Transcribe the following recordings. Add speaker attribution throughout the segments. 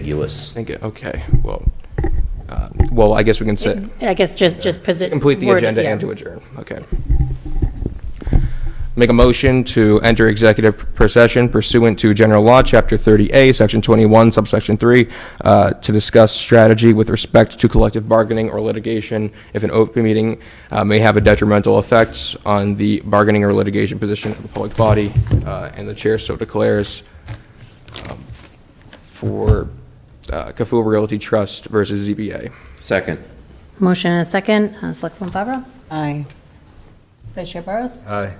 Speaker 1: ambiguous.
Speaker 2: think, it- okay, well, uh, well, I guess we can sit,
Speaker 3: I guess just, just posi-
Speaker 2: complete the
Speaker 3: word it,
Speaker 2: agenda
Speaker 3: yeah.
Speaker 2: and to adjourn, okay. Make a motion to enter executive procession pursuant to General Law, Chapter 30A, Section 21, subsection 3, uh, to discuss strategy with respect to collective bargaining or litigation if an open meeting uh, may have a detrimental effect on the bargaining or litigation position of the public body, uh, and the chair so declares um, for uh, Kafua Realty Trust versus ZBA.
Speaker 1: Second.
Speaker 3: Motion and a second. Uh, Selectwoman Favreau?
Speaker 4: Aye.
Speaker 3: Vice Chair Burrows?
Speaker 5: Aye.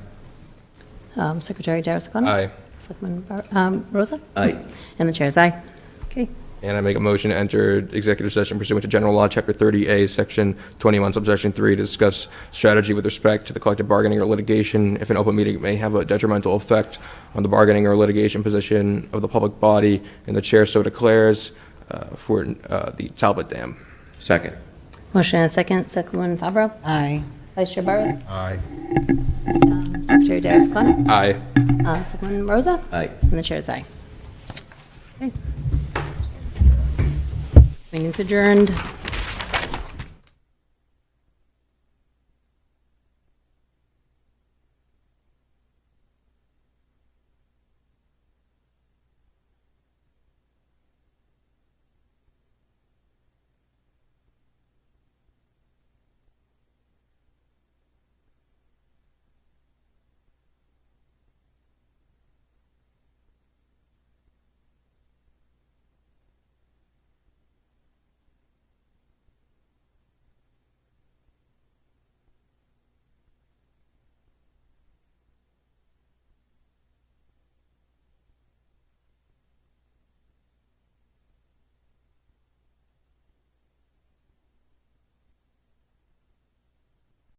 Speaker 3: Um, Secretary Darius O'Connor?
Speaker 2: Aye.
Speaker 3: Selectman Bar- um, Rosa?
Speaker 1: Aye.
Speaker 3: And the chair's aye. Okay.
Speaker 2: And I make a motion to enter executive session pursuant to General Law, Chapter 30A, Section 21, Subsection 3, to discuss strategy with respect to the collective bargaining or litigation if an open meeting may have a detrimental effect on the bargaining or litigation position of the public body, and the chair so declares uh, for uh, the Talbot Dam.
Speaker 1: Second.
Speaker 3: Motion and a second. Selectwoman Favreau?
Speaker 4: Aye.
Speaker 3: Vice Chair Burrows?
Speaker 5: Aye.
Speaker 3: Um, Secretary Darius O'Connor?
Speaker 2: Aye.
Speaker 3: Uh, Selectwoman Rosa?
Speaker 1: Aye.
Speaker 3: And the chair's aye. Okay. Meeting's adjourned.